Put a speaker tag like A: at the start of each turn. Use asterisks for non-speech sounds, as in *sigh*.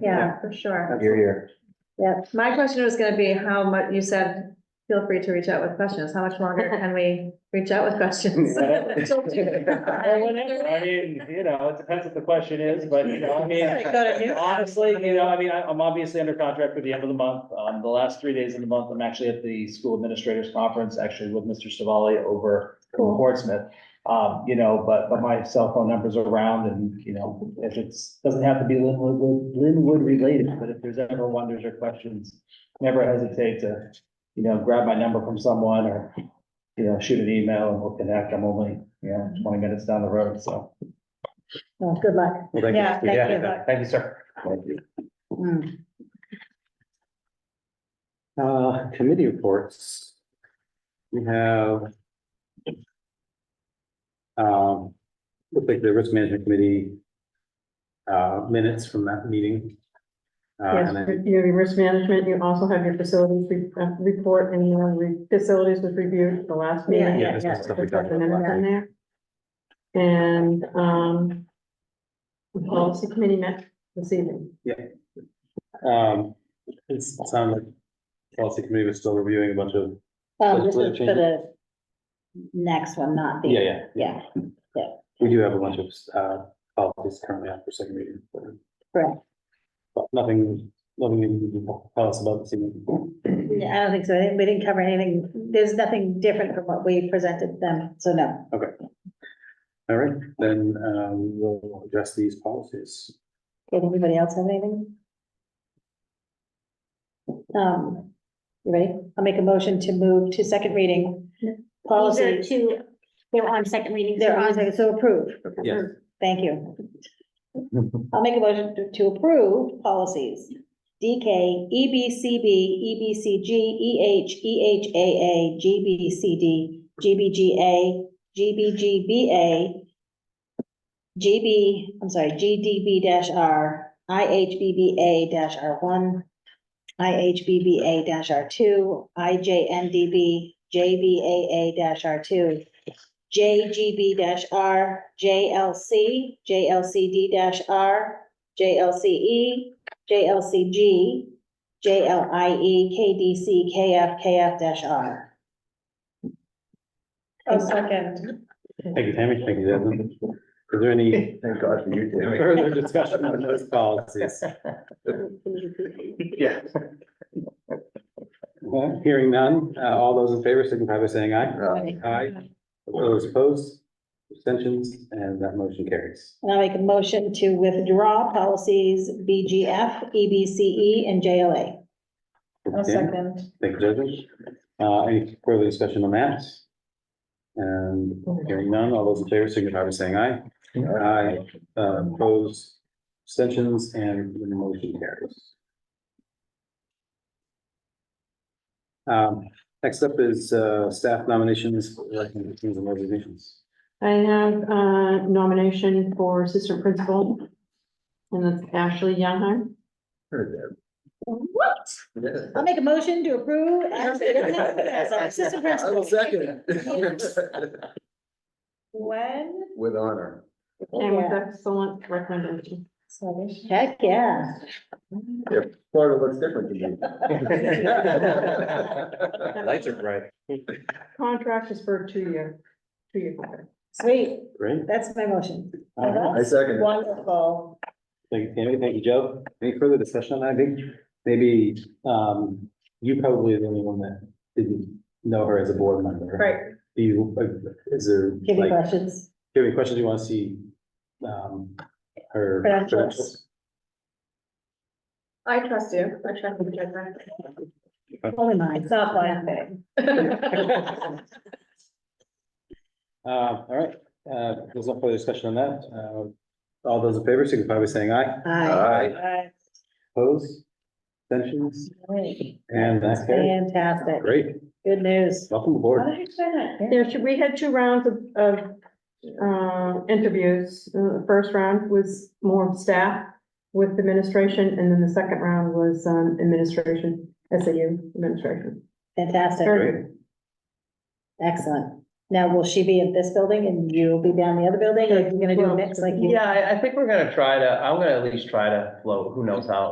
A: Yeah, for sure.
B: You're here.
A: Yeah, my question was gonna be how much, you said, feel free to reach out with questions. How much longer
C: *laughs*
A: can we reach out with questions? Till June.
B: Well, whatever. I mean, you know, it depends what the question is, but you know, I mean, honestly, you know, I mean, I- I'm obviously under contract for the end of the month. Um, the last three days of the month, I'm actually at the school administrators conference, actually with Mr. Savali over in
A: Cool.
B: Portsmouth. Um, you know, but, but my cell phone number's around and, you know, if it's, doesn't have to be Linwood, Linwood related, but if there's ever wonders or questions, never hesitate to, you know, grab my number from someone or, you know, shoot an email and we'll connect. I'm only, you know, twenty minutes down the road, so.
A: *laughs* Well, Good luck.
D: Thank you.
A: Yeah, thank you. Hmm.
B: Thank you, sir.
D: Thank you. Uh, committee reports. We have. Um, looks like the risk management committee. Uh, minutes from that meeting. Uh,
C: Yes,
D: and I-
C: you have your risk management, you also have your facilities re- uh, report and your re- facilities was reviewed at the last
A: Yeah,
C: meeting.
D: yeah, this is the stuff we
C: Just
D: talked
C: put the
D: about.
C: minutes in
D: last week.
C: there. And, um,
E: Um,
C: the policy committee met this evening.
D: Um, it sounded like policy committee was still reviewing a bunch of,
E: Um, this is
D: Legislative
E: for the next one, not the.
D: yeah, yeah,
E: Yeah,
D: we do have a bunch of, uh, policies currently out for second reading. but-
E: correct.
D: But nothing, nothing you can tell us about this evening.
E: Yeah, I don't think so. I didn't- We didn't cover anything. There's nothing different from what we presented them, so no.
D: All right, then, um, we'll address these policies.
E: Did anybody else have anything? Um, you ready? I'll make a motion to move to second reading.
F: These are
E: Policy,
F: two, they're on second reading. so
E: they're on,
F: these-
E: second, so approved.
D: Yes. *laughs*
E: Thank you. I'll make a motion to- to approve policies. E DK, EBCB, EBCG, EH, EHAA, GBCD, GBGA, GBGBA, GB, I'm sorry, GDB R, IHBBA R one, IHBBA R two, IJNDB, JBAA R two, JGB dash R, JLC, JLCD dash R, JLCE, JLCG, JLIE, KDC, KF, KF dash R.
A: Oh, second.
D: Thank you, Tammy. Thank you, Desmond. Is there any
B: Thank God for you,
D: *laughs* further discussion on those policies?
B: Yeah.
D: Well, Hearing none, uh, all those in favor signify by saying aye. Aye. Those opposed, abstentions, and that motion carries.
E: And I'll make a motion to withdraw policies BGF, EBCE, E, and JLA.
A: Oh,
D: Okay,
A: second.
D: Thank you, Desmond. Uh, any further discussion on that? And hearing none, all those in favor signify by saying aye. Aye, uh, opposed, abstentions, and the motion carries. Um, next up is, uh, staff nominations, recommendations, and resignations.
C: I have a nomination for assistant principal. And that's Ashley Youngheim.
E: What? I'll make a motion to approve as as our assistant principal.
A: When?
G: With honor.
C: And with excellent recommendation.
A: Sorry.
E: Heck, yeah.
G: Florida looks different to me.
D: Lights are bright.
C: Contract is for a two-year, two-year contract.
E: Sweet.
D: *laughs* Great.
E: That's my motion.
G: I second it.
E: Wonderful.
D: Thank you, Tammy. Thank you, Joe. Any further discussion on that? I think maybe, um, you probably are the only one that didn't know her as a board member.
A: Right.
D: Do you, uh, is there?
E: Give me
D: like,
E: questions.
D: Do you have any questions you want to see? Um, her.
E: Credentials.
A: I trust you. I trust your judgment.
E: Only mine.
A: It's not blind *laughs* faith.
D: *laughs* Uh, all right, uh, there's no further discussion on that. Uh, all those in favor signify by saying aye.
E: Aye.
G: Aye.
D: Opposed? Abstentions? And that's carried.
E: Fantastic.
D: Great.
E: Good news.
D: Welcome
A: How
D: aboard.
A: did I say that?
C: There should, we had two rounds of, of, uh, interviews. Uh, The first round was more of staff with administration, and then the second round was, um, administration, SAU administration.
E: Fantastic.
C: Very
D: Great.
C: good.
E: Excellent. Now, will she be at this building and you'll be down the other building? Are you gonna do a mix like you?
B: Yeah, I, I think we're gonna try to, I'm gonna at least try to float, who knows how.